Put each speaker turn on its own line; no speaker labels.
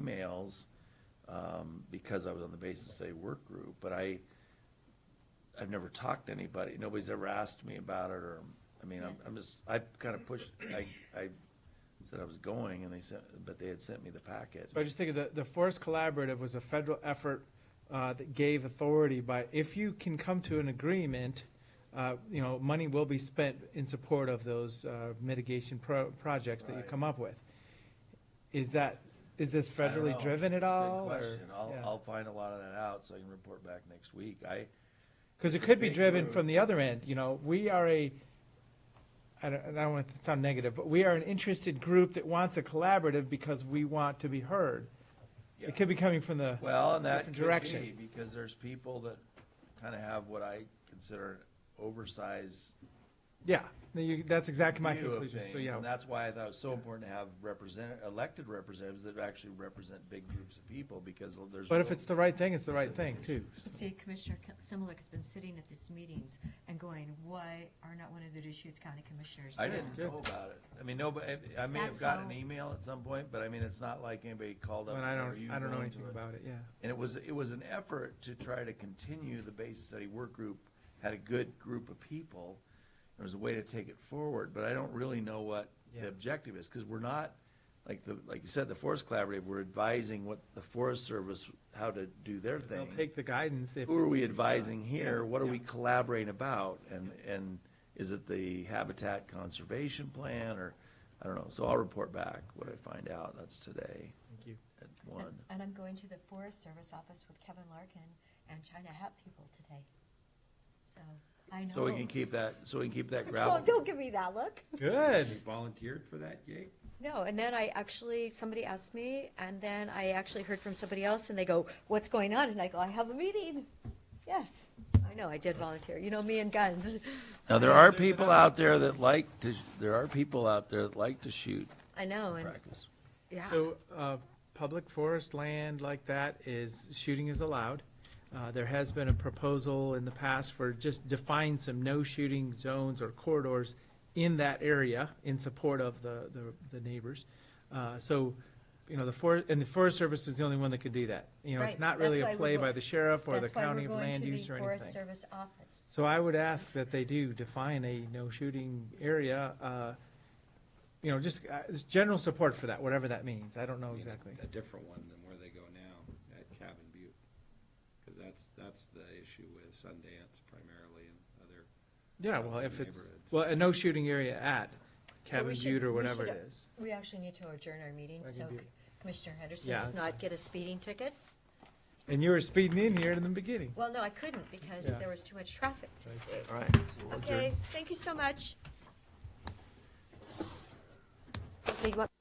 emails, um, because I was on the basis day work group, but I, I've never talked to anybody, nobody's ever asked me about it, or, I mean, I'm,
Yes.
I'm just, I kinda pushed, I, I said I was going, and they sent, but they had sent me the packet.
So I just think of the, the Forest Collaborative was a federal effort uh, that gave authority by, if you can come to an agreement, uh, you know, money will be spent in support of those uh, mitigation pro- projects that you
Right.
come up with. Is that, is this
I don't
federally
know.
driven at
It's a good
all?
question. I'll, I'll find a lot of that out, so I can report back next week, I,
Because it
it's a
could be
big
driven
move.
from the other end, you know, we are a, I don't, I don't want to sound negative, but we are an interested group that wants a collaborative because we want to be heard.
Yeah.
It could be coming from the,
Well, and that
different
could
direction.
be, because there's people that kind of have what I consider oversized
yeah, no, you- that's exactly my
view of
conclusion,
things.
so yeah.
And that's why I thought it was so important to have represent, elected representatives that actually represent big groups of people, because there's.
But if
real-
it's the right thing, it's the right thing, too.
But see, Commissioner K- Similic has been sitting at these meetings and going, why are not one of the Deschutes County Commissioners
I
there?"
didn't know about it. I mean, nobody, I- I may have
That's
gotten an
how-
email at some point, but I mean, it's not like anybody called up
But
and
I
said, are
don't,
you
I don't know
going to
anything
it?"
about it, yeah.
And it was, it was an effort to try to continue, the base study work group had a good group of people. There was a way to take it forward, but I don't really know what the
Yeah.
objective is, because we're not, like the, like you said, the Forest Collaborative, we're advising what the Forest Service, how to do their
They'll
thing.
take the guidance if.
Who are
it's-
we advising here? What are we
Yeah.
collaborating about? And, and is it the Habitat Conservation Plan, or, I don't know, so I'll report back what I find out, that's today
Thank you.
at
And-
one.
And I'm going to the Forest Service office with Kevin Larkin and China Hat people today. So, I know.
So we can keep that, so we can keep that
Oh,
gravel.
don't give me that look.
Good.
You volunteered for that gig?
No, and then I actually, somebody asked me, and then I actually heard from somebody else, and they go, what's going on? And I go, I have a meeting. Yes, I know, I did volunteer. You know me and guns.
Now, there are people out there that like to, there are people out there that like to shoot
I know, and,
practice.
yeah.
So, uh, public forest land like that is, shooting is allowed. Uh, There has been a proposal in the past for just define some no-shooting zones or corridors in that area in support of the, the- the neighbors. Uh, So, you know, the for, and the Forest Service is the only one that could do that. You know, it's
Right,
not really
that's why
a play
we're go-
by the sheriff or the
That's why
county
we're
of
going
land
to the
use or
Forest
anything.
Service office.
So I would ask that they do define a no-shooting area, uh, you know, just, uh, just general support for that, whatever that means. I don't know exactly.
A different one than where they go now, at Cabin Butte. Because that's, that's the issue with Sundance primarily and other.
Yeah,
of
well,
the
if it's,
neighborhood.
well, a no shooting area at
we
Cabin
should-
Butte or
we
whatever
should-
it is.
We actually need to adjourn our meeting,
I can
so
do-
C- Commissioner Henderson
Yeah,
does
that's
not get a speeding ticket.
And you were speeding in here in the beginning.
Well, no, I couldn't, because
Yeah.
there was too much traffic to
Thanks.
speed.
All right. so we'll adjourn.
Okay, thank you so much. Okay, you want-